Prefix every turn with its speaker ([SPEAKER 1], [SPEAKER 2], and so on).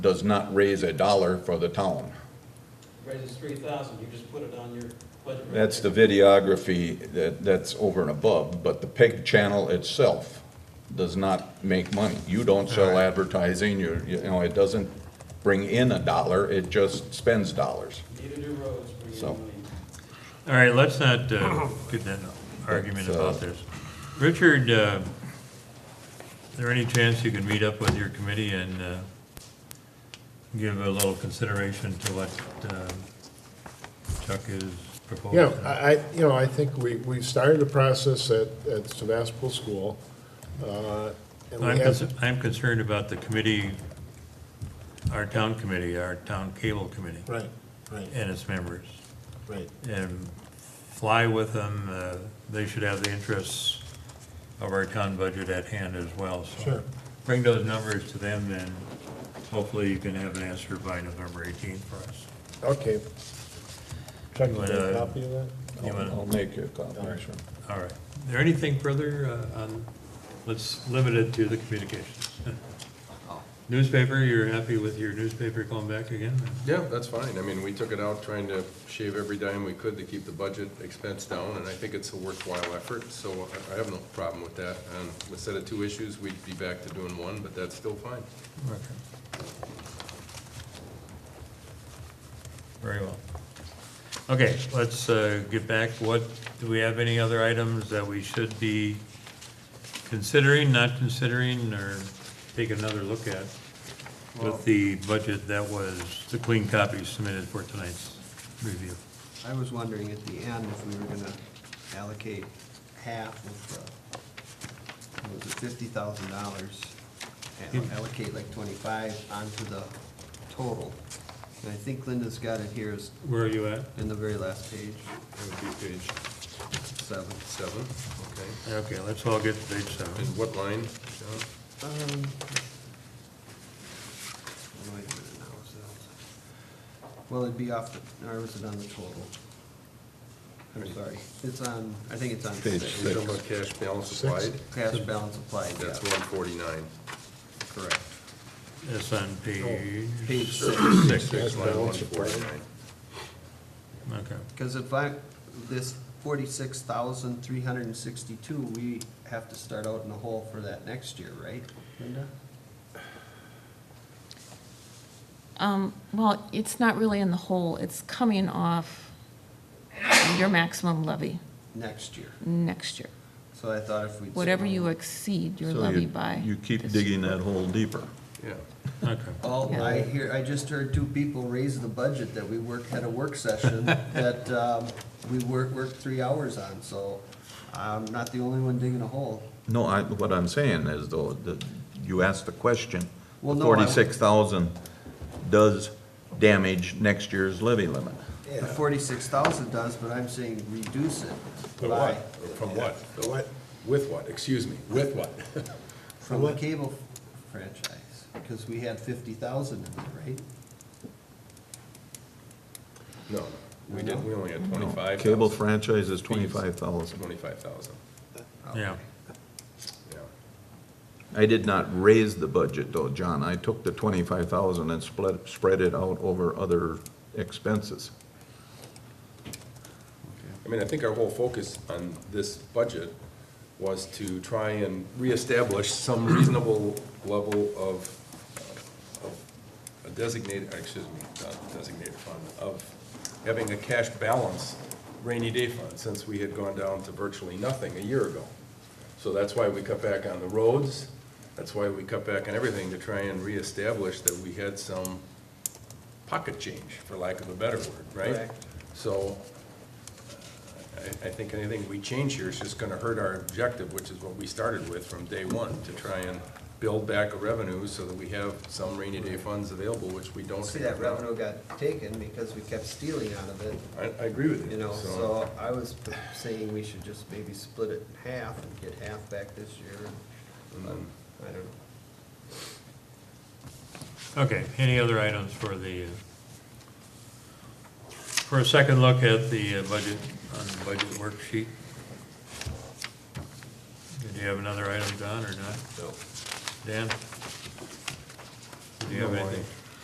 [SPEAKER 1] does not raise a dollar for the town.
[SPEAKER 2] raises three thousand, you just put it on your budget.
[SPEAKER 1] That's the videography that, that's over and above, but the pig channel itself does not make money. You don't sell advertising, you, you know, it doesn't bring in a dollar, it just spends dollars.
[SPEAKER 2] Need a new roads for
[SPEAKER 1] So-
[SPEAKER 2] your money.
[SPEAKER 3] All right, let's not uh, get in an argument
[SPEAKER 1] That's, uh,
[SPEAKER 3] about this. Richard, uh, is there any chance you can meet up with your committee and uh, give a little consideration to what um, Chuck is proposing?
[SPEAKER 4] Yeah, I, I- you know, I think we, we started the process at, at Sebastopol School. uh, And we
[SPEAKER 3] I'm
[SPEAKER 4] have,
[SPEAKER 3] cons- I'm concerned about the committee, our town committee, our town cable committee,
[SPEAKER 4] right, right,
[SPEAKER 3] and its members.
[SPEAKER 4] right.
[SPEAKER 3] and fly with them. uh, They should have the interests of our town budget at hand as well, so.
[SPEAKER 4] Sure.
[SPEAKER 3] Bring those numbers to them, and hopefully you can have an answer by November 18th for us.
[SPEAKER 4] Okay. Chuck, you
[SPEAKER 3] But,
[SPEAKER 4] want a
[SPEAKER 3] uh,
[SPEAKER 4] copy of that?
[SPEAKER 3] You
[SPEAKER 1] I'll
[SPEAKER 3] wanna-
[SPEAKER 1] I'll make you a copy,
[SPEAKER 4] All right.
[SPEAKER 1] sure.
[SPEAKER 3] All right. There anything further uh, on, let's limit it to the communications. Newspaper, you're happy with your newspaper going back again?
[SPEAKER 5] Yeah, that's fine. I mean, we took it out trying to shave every dime we could to keep the budget expense down, and I think it's a worthwhile effort, so I- I have no problem with that. And instead of two issues, we'd be back to doing one, but that's still fine.
[SPEAKER 3] Okay. Very well. Okay, let's uh, get back, what, do we have any other items that we should be considering, not considering, or take another look at with the budget that was, the clean copy submitted for tonight's review?
[SPEAKER 6] I was wondering at the end if we were gonna allocate half of the, what was it, fifty thousand dollars? And allocate like twenty-five onto the total. And I think Linda's got it here is
[SPEAKER 3] Where are you at?
[SPEAKER 6] in the very last page,
[SPEAKER 5] That would be page
[SPEAKER 6] seven.
[SPEAKER 5] seven, okay.
[SPEAKER 3] Okay, let's all get to page seven.
[SPEAKER 5] And what line, John?
[SPEAKER 6] Um, Wait a minute now, so. Well, it'd be off the, or is it on the total? I'm sorry, it's on, I think it's on
[SPEAKER 1] Page
[SPEAKER 6] six.
[SPEAKER 5] You're talking about cash balance
[SPEAKER 4] Six.
[SPEAKER 5] applied?
[SPEAKER 6] Cash balance applied, yeah,
[SPEAKER 5] That's one forty-nine.
[SPEAKER 6] correct.
[SPEAKER 3] That's on Oh, page,
[SPEAKER 6] Page six.
[SPEAKER 4] Cash
[SPEAKER 5] Six, line one
[SPEAKER 4] balance applied.
[SPEAKER 5] forty-nine.
[SPEAKER 3] okay.
[SPEAKER 6] Because if I, this forty-six thousand, three hundred and sixty-two, we have to start out in the hole for that next year, right, Linda?
[SPEAKER 7] Um, well, it's not really in the hole, it's coming off your maximum levy
[SPEAKER 6] Next year.
[SPEAKER 7] next year,
[SPEAKER 6] So I thought if we.
[SPEAKER 7] whatever you exceed your levy by.
[SPEAKER 1] You keep
[SPEAKER 7] this-
[SPEAKER 1] digging that hole deeper.
[SPEAKER 5] Yeah,
[SPEAKER 3] Okay.
[SPEAKER 6] Oh, I hear, I just heard two people raise the budget that we work, had a work session that, um, we worked, worked three hours on, so I'm not the only one digging a hole.
[SPEAKER 1] No, I, what I'm saying is though, that you asked the question,
[SPEAKER 6] Well, no, I-
[SPEAKER 1] forty-six thousand does damage next year's levy limit.
[SPEAKER 6] The forty-six thousand does, but I'm saying reduce it.
[SPEAKER 8] But
[SPEAKER 6] by-
[SPEAKER 8] what? From what? The what? With what? Excuse me, with what?
[SPEAKER 6] From the cable franchise, because we had fifty thousand in there, right?
[SPEAKER 5] no, we didn't, we only had twenty-five.
[SPEAKER 1] Cable franchise is twenty-five thousand.
[SPEAKER 5] Twenty-five thousand,
[SPEAKER 3] Yeah,
[SPEAKER 5] yeah.
[SPEAKER 1] I did not raise the budget though, John. I took the twenty-five thousand and split, spread it out over other expenses.
[SPEAKER 5] I mean, I think our whole focus on this budget was to try and reestablish some reasonable level of, of a designated, excuse me, not designated fund, of having a cash balance rainy day fund, since we had gone down to virtually nothing a year ago. So that's why we cut back on the roads, that's why we cut back on everything, to try and reestablish that we had some pocket change, for lack of a better word, right?
[SPEAKER 6] Correct.
[SPEAKER 5] So, I, I think anything we change here is just gonna hurt our objective, which is what we started with from day one, to try and build back a revenue so that we have some rainy day funds available, which we don't
[SPEAKER 6] See,
[SPEAKER 5] have
[SPEAKER 6] that
[SPEAKER 5] now.
[SPEAKER 6] revenue got taken because we kept stealing out of it,
[SPEAKER 5] I, I agree with you.
[SPEAKER 6] you know, so I was saying we should just maybe split it in half and get half back this year,
[SPEAKER 5] and then-
[SPEAKER 6] I don't know.
[SPEAKER 3] Okay, any other items for the, uh, for a second look at the uh, budget, on the budget worksheet? Did you have another item, Don, or not? No. Dan? Do you have anything?